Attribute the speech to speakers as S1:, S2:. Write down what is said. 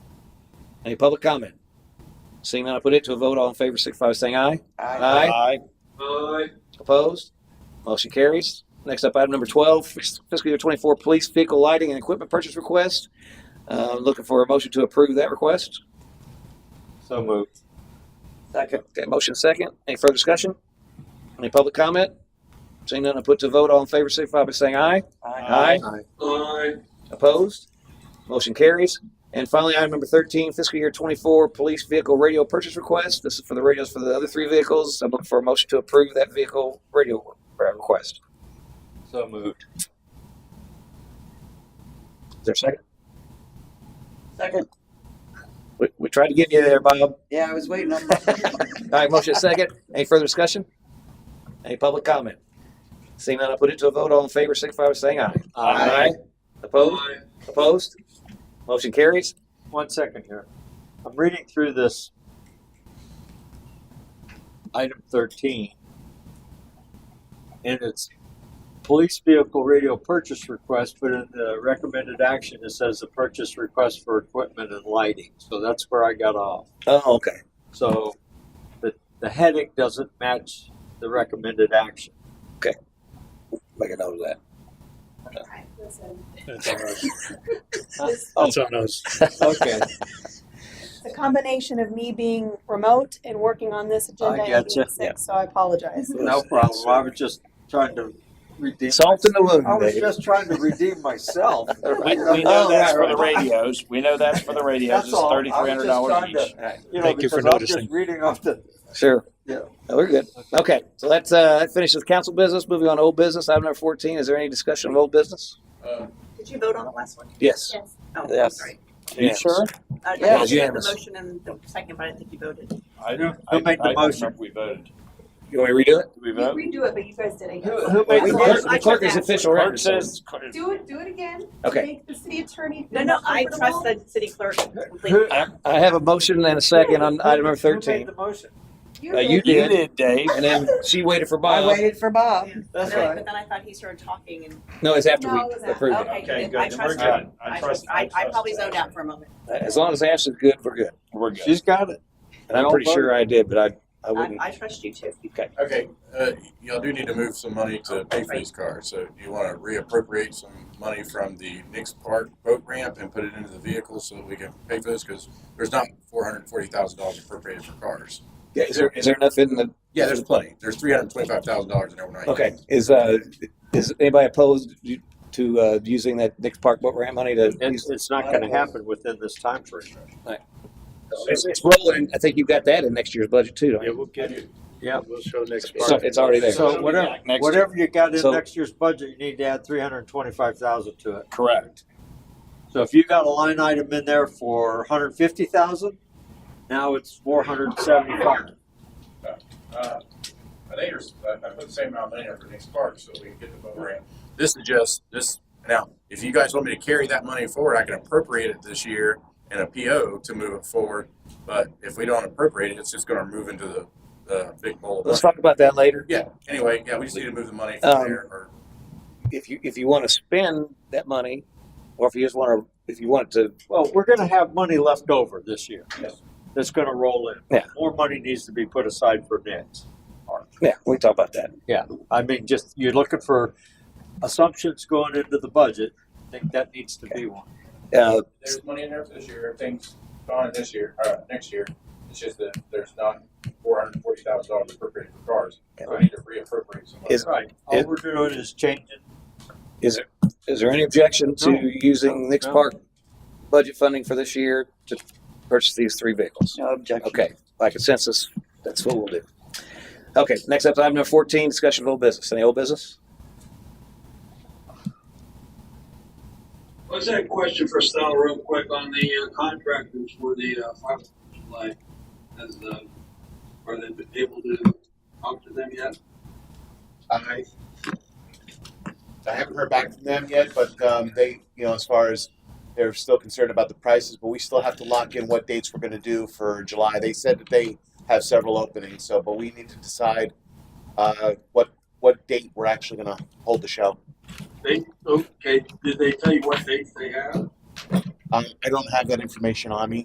S1: Any public comment? Seeing none, I put it to a vote. All in favor, signify by saying aye.
S2: Aye.
S3: Aye.
S4: Aye.
S1: Opposed? Motion carries. Next up, item number 12, fiscal year 24 police vehicle lighting and equipment purchase request. Uh, Looking for a motion to approve that request.
S3: So moved.
S1: Okay,
S2: Second.
S1: okay, motion second. Any further discussion? Any public comment? Seeing none, I put to vote. All in favor, signify by saying aye. Aye.
S4: Aye.
S1: Opposed? Motion carries. And finally, item number 13, fiscal year 24 police vehicle radio purchase request. This is for the radios for the other three vehicles. I'm looking for a motion to approve that vehicle radio uh, request.
S3: So moved.
S1: Is there a second?
S2: Second.
S1: We, we tried to get you there, Bob.
S2: Yeah, I was waiting on that.
S1: All right, motion is second. Any further discussion? Any public comment? Seeing none, I put it to a vote. All in favor, signify by saying aye.
S3: Aye.
S1: Opposed? Opposed? Motion carries.
S3: One second here. I'm reading through this item 13, and it's police vehicle radio purchase request, but in the recommended action, it says a purchase request for equipment and lighting. So that's where I got off.
S1: Oh, okay.
S3: So the, the heading doesn't match the recommended action.
S1: Make a note of that.
S5: Listen,
S6: That's on us.
S1: Oh.
S6: That's on us.
S3: Okay,
S5: it's a combination of me being remote and working on this agenda. and
S3: gotcha.
S5: being sick, So I apologize.
S3: no problem. I was just trying to redeem.
S1: Salt in the wound,
S3: I was
S1: Dave.
S3: just trying to redeem myself.
S7: We, we
S1: Oh,
S7: know that's for
S1: right,
S7: the
S1: right.
S7: radios. We know that's for the radios.
S3: That's
S7: It's
S3: all. I was
S7: thirty-three hundred dollars
S3: just trying
S7: each.
S3: to-
S1: All right.
S3: You know,
S6: Thank you for
S3: because I'm
S6: noticing.
S3: Just reading off the,
S1: Sure.
S3: Yeah.
S1: No, We're good. Okay, so that's, uh, that finishes council business. Moving on to old business. Item number 14, is there any discussion of old business?
S8: Did you vote on the last one?
S1: Yes.
S8: Yes. Oh,
S2: Yes.
S8: sorry. Uh,
S1: You sure?
S8: I
S2: Yeah,
S8: I did the
S1: unanimous.
S8: motion and the second, but I think you voted.
S7: I
S3: Who-
S7: don't.
S3: who made the
S7: I don't
S3: motion?
S7: remember We voted.
S1: You want me to redo it?
S7: Did we
S5: You
S7: vote?
S5: Redo it, but you guys did it.
S3: Who- who made
S1: The
S3: the
S1: clerk-
S3: motion?
S1: the clerk is official
S7: Clerk
S1: record.
S7: says.
S5: Do it, do it again.
S1: Okay.
S5: Make the city attorney. feel
S8: No, no, I
S5: comfortable.
S8: trust the city clerk
S3: Who-
S8: completely.
S1: I I have a motion and a second on item number
S3: Who made
S1: 13.
S3: the motion?
S5: You
S1: Uh, you
S5: did.
S7: You
S1: did,
S7: did, Dave.
S1: and then she waited for
S2: I
S1: Bob.
S2: waited for Bob.
S3: That's
S8: But then-
S3: right.
S8: But then I thought he started talking and,
S1: No, it's after we
S5: No, it was after.
S1: approve it.
S8: okay,
S7: Okay,
S8: good.
S7: good.
S8: I
S7: Then we're
S8: trust
S7: good.
S8: him.
S7: I
S8: I,
S7: trust.
S8: I, I probably zoned
S7: don't.
S8: out for a moment.
S1: As long as Ashley's good, we're good.
S7: We're good.
S3: She's got it.
S1: And I'm pretty sure I did, but I, I
S8: I,
S1: wouldn't.
S8: I trust you too.
S9: Okay, uh, y'all do need to move some money to pay for these cars, so do you wanna reappropriate some money from the Nix Park boat ramp and put it into the vehicle so that we can pay for this, cause there's not four hundred and forty thousand dollars appropriated for cars.
S1: Yeah, is there, is there enough in the,
S9: Yeah, there's plenty, there's three hundred and twenty-five thousand dollars in overnight.
S1: okay, is, uh, is anybody opposed to, uh, using that Nick's Park boat ramp money to?
S3: It's, it's not going to happen within this time frame.
S1: It's, it's rolling. I think you've got that in next year's budget too, don't
S6: Yeah,
S1: you?
S6: we'll get it. We'll show next.
S1: It's, it's already there.
S3: So whatever,
S7: Next year.
S3: whatever you got in
S1: So-
S3: next year's budget, you need to add three hundred and twenty-five thousand to it.
S7: Correct.
S3: So if you got a line item in there for hundred and fifty thousand, now it's four hundred and seventy-five.
S9: Uh, I think there's, I, I put the same amount of money in for Nix Park so we can get the boat ramp. This is just, this, now, if you guys want me to carry that money forward, I can appropriate it this year in a PO to move it forward. But if we don't appropriate it, it's just gonna move into the, the big bowl of money.
S1: Let's talk about that later.
S9: Yeah, anyway, yeah, we just need to move the money
S1: Um,
S9: from there or
S1: If you, if you want to spend that money, or if you just want to, if you want to,
S3: Well, we're going to have money left over this year.
S9: Yes.
S3: That's going to roll in.
S1: Yeah.
S3: More money needs to be put aside for next.
S1: yeah, we can talk about that.
S3: I mean, just, you're looking for assumptions going into the budget. I think that needs to be one.
S1: Uh,
S9: there's money in there for this year, everything's gone this year, uh, next year. It's just that there's not four hundred and forty thousand dollars appropriated for cars. So we need to reappropriate some money.
S1: Is-
S3: Right. All we're doing is changing.
S1: is there, is there any objection to
S3: No.
S1: using Nick's
S3: No.
S1: Park budget funding for this year to purchase these three vehicles?
S2: No objection.
S1: Okay, by consensus, that's what we'll do. Okay, next up, item number fourteen, discussion of old business. Any old business?
S4: What's that question for Stella real quick on the uh, contractors for the uh, fiber line? Has, uh, are they been able to talk to them yet?
S10: I, I haven't heard back from them yet, but um, they, you know, as far as they're still concerned about the prices, but we still have to lock in what dates we're going to do for July. They said that they have several openings, so but we need to decide uh, what what date we're actually going to hold the show.
S4: They, okay, did they tell you what dates they have?
S10: Um, I don't have that information on me.